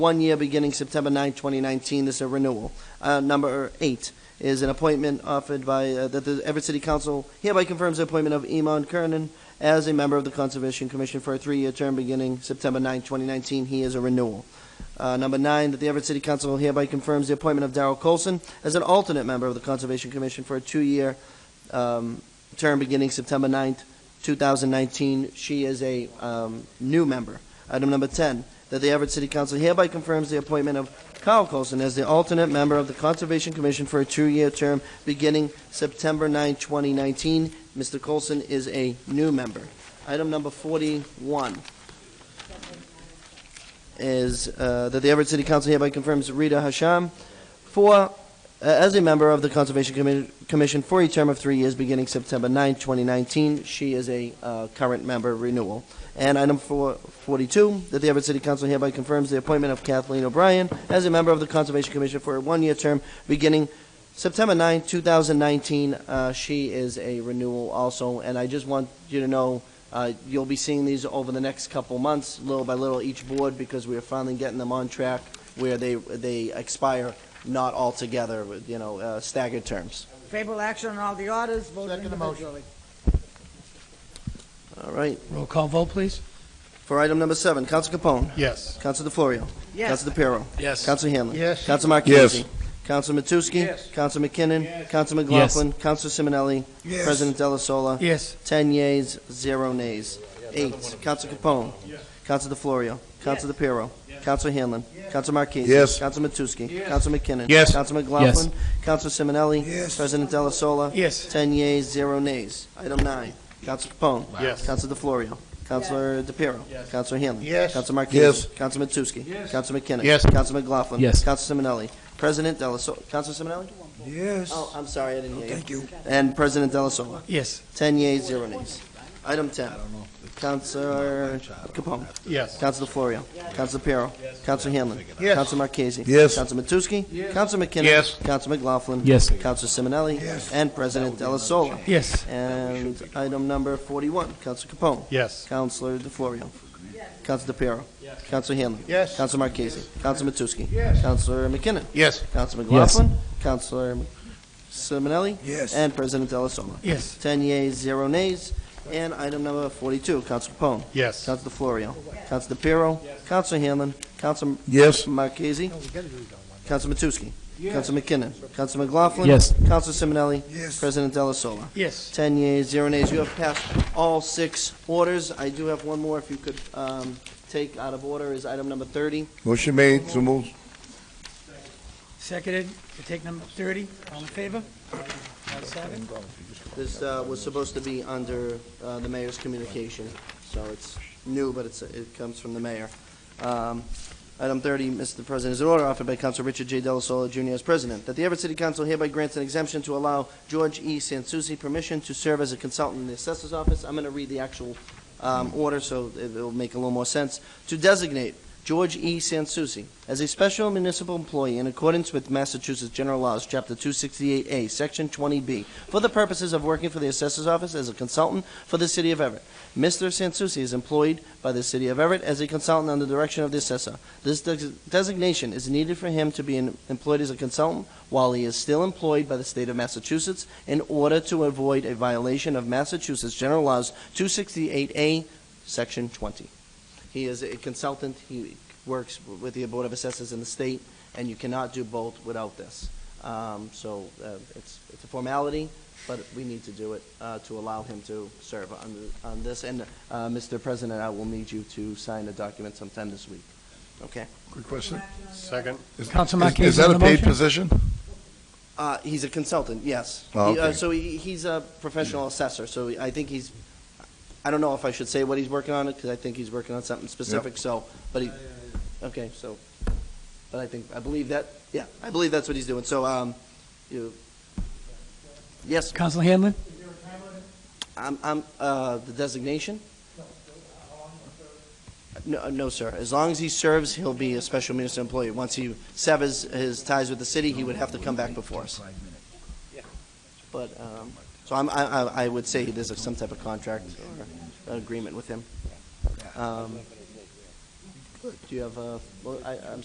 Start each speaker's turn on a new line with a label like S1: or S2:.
S1: one year beginning September 9, 2019. This is a renewal. Uh, Number eight is an appointment offered by, uh, that the Everett City Council hereby confirms the appointment of Iman Kernan as a member of the Conservation Commission for a three-year term beginning September 9, 2019. He is a renewal. Uh, Number nine, that the Everett City Council hereby confirms the appointment of Darrell Colson as an alternate member of the Conservation Commission for a two-year um, term beginning September 9, 2019. She is a um, new member. Item number 10, that the Everett City Council hereby confirms the appointment of Kyle Colson as the alternate member of the Conservation Commission for a two-year term beginning September 9, 2019. Mr. Colson is a new member. Item number 41 is uh, that the Everett City Council hereby confirms Rita Hasham for, uh, as a member of the Conservation Commi- Commission for a term of three years beginning September 9, 2019. She is a uh, current member renewal. And item four- 42, that the Everett City Council hereby confirms the appointment of Kathleen O'Brien as a member of the Conservation Commission for a one-year term beginning September 9, 2019. Uh, She is a renewal also, and I just want you to know, uh, you'll be seeing these over the next couple months, little by little, each board, because we are finally getting them on track where they, they expire not all together, with, you know, uh, staggered terms.
S2: Favorable action on all the orders, voted
S3: Second motion.
S2: individually.
S1: All right.
S3: Roll call vote, please.
S1: For item number seven, Counsel Capone.
S3: Yes.
S1: Counsel DeFlorio.
S2: Yes,
S1: Counsel DePiero.
S3: Yes.
S1: Counsel Hanlon.
S3: Yes.
S1: Counsel Marquez. Yes. Counsel Matusky. Yes. Counsel McKinnon. Counsel McLaughlin. Counsel Simonelli. President Delasola.
S3: Yes.
S1: Ten yeas, zero nays. Eight, Counsel Capone. Yes. Counsel DeFlorio. Counsel DePiero. Counsel Hanlon. Counsel Marquez.
S4: Yes.
S1: Counsel Matusky. Counsel McKinnon.
S4: Yes.
S1: Counsel McLaughlin. Counsel Simonelli. Yes. President Delasola.
S3: Yes.
S1: Ten yeas, zero nays. Item nine, Counsel Capone.
S3: Yes.
S1: Counsel DeFlorio. Counselor DePiero. Yes. Counselor Hanlon.
S3: Yes.
S1: Counselor Marquez.
S4: Yes.
S1: Counsel Matusky. Yes. Counsel McKinnon.
S4: Yes.
S1: Counsel McLaughlin.
S5: Yes.
S1: Counsel Simonelli. President Delasola. Counsel Simonelli?
S4: Yes.
S1: Oh, I'm sorry, I didn't hear you. Thank you. And President Delasola.
S3: Yes.
S1: Ten yeas, zero nays. Item ten. Counselor Capone.
S3: Yes.
S1: Counselor DeFlorio. Counselor Piero. Counselor Hanlon.
S3: Yes.
S1: Counselor Marquez.
S4: Yes.
S1: Counselor Matusky. Counselor McKinnon.
S4: Yes.
S1: Counselor McLaughlin.
S5: Yes.
S1: Counselor Simonelli. Yes. And President Delasola.
S3: Yes.
S1: And item number forty-one, Counselor Capone.
S3: Yes.
S1: Counselor DeFlorio. Counselor DePiero. Counselor Hanlon.
S3: Yes.
S1: Counselor Marquez. Counselor Matusky. Counselor McKinnon.
S4: Yes.
S1: Counselor McLaughlin. Counselor Simonelli.
S4: Yes.
S1: And President Delasola.
S3: Yes.
S1: Ten yeas, zero nays. And item number forty-two, Counsel Capone.
S3: Yes.
S1: Counsel DeFlorio. Counsel DePiero. Counsel Hanlon. Counsel
S4: Yes.
S1: Marchese. Counsel Matusky. Counsel McKinnon. Counsel McLaughlin.
S5: Yes.
S1: Counsel Simonelli.
S4: Yes.
S1: President Delasola.
S3: Yes.
S1: Ten yeas, zero nays. You have passed all six orders. I do have one more, if you could um, take out of order, is item number thirty.
S4: Motion made, so moved.
S3: Seconded, we take number thirty, all in favor? All seven?
S1: This uh, was supposed to be under uh, the mayor's communication, so it's new, but it's, it comes from the mayor. Um, Item 30, Mr. President, is an order offered by Council Richard J. Delasola Jr. as president, that the Everett City Council hereby grants an exemption to allow George E. Sansucci permission to serve as a consultant in the assessor's office. I'm going to read the actual um, order, so it- it'll make a little more sense. To designate George E. Sansucci as a special municipal employee in accordance with Massachusetts General Laws, Chapter 268A, Section 20B, for the purposes of working for the assessor's office as a consultant for the city of Everett. Mr. Sansucci is employed by the city of Everett as a consultant under the direction of the assessor. This des- designation is needed for him to be en- employed as a consultant while he is still employed by the state of Massachusetts in order to avoid a violation of Massachusetts General Laws 268A, Section 20. He is a consultant, he works with the Board of Assessors in the state, and you cannot do both without this. Um, So uh, it's it's a formality, but we need to do it uh, to allow him to serve on the- on this. And, uh, Mr. President, I will need you to sign a document sometime this week. Okay?
S4: Quick question.
S6: Second.
S4: Is-
S3: Council
S4: is-
S3: Marquez
S4: Is that
S3: on
S4: a
S3: the
S4: paid
S3: motion?
S4: position?
S1: Uh, He's a consultant, yes.
S4: Oh,
S1: He, uh,
S4: okay. Mm-hmm.
S1: So he- he's a professional assessor, so I think he's, I don't know if I should say what he's working on, because I think he's working on something specific, so, but he, okay, so, but I think, I believe that, yeah, I believe that's what he's doing, so, um, you, yes,
S3: Council Hanlon?
S1: I'm, I'm, uh, the designation? No, no, sir. As long as he serves, he'll be a special municipal employee. Once he severs his ties with the city, he would have to come back before us. But, um, so I'm, I, I- I would say there's some type of contract or agreement with him. Um, Do you have, uh, well, I, I'm